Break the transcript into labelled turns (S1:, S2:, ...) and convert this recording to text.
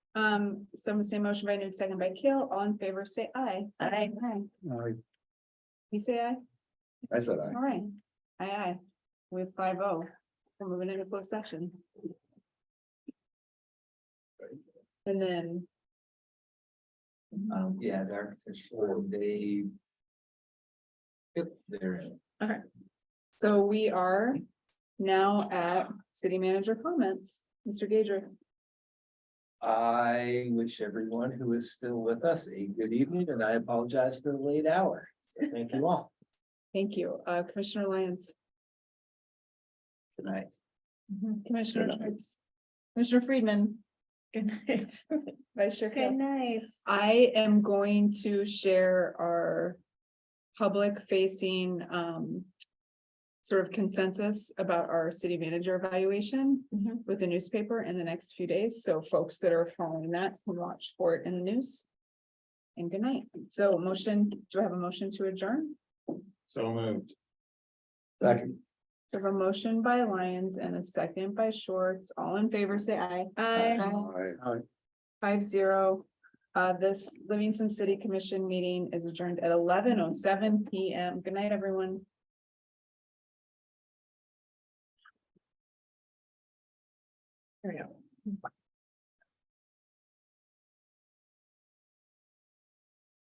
S1: Um, some say motion by Nude, second by Kale, all in favor, say aye. Aye. Aye.
S2: I,
S1: You say aye?
S2: I said I.
S1: All right. Aye, aye. We have five oh. We're moving into closed section. And then. uh,
S3: Um, yeah, the architects, or they. Yep, they're in.
S1: So we are now at city manager comments. Mr. Gager.
S3: I wish everyone who is still with us a good evening, and I apologize for the late hour. So Thank you all
S1: thank you. Uh, Commissioner Lyons.
S3: tonight.
S1: Commissioner
S2: Good night.
S1: Schwartz. Commissioner Friedman. Good night. Vice Chair Kale.
S4: Good night.
S1: I am going to share our public facing um. Sort of consensus about our city manager evaluation
S4: Mhm.
S1: with the newspaper in the next few days, so folks that are following that can watch for it in the news. And good night, so motion, do I have a motion to adjourn?
S2: So moved. Second.
S1: So I have a motion by Lyons and a second by Shorts, all in favor, say aye. Aye.
S2: Aye.
S1: Five zero. Uh, this Livingston City Commission meeting is adjourned at eleven oh seven P M. Good night, everyone. There we go.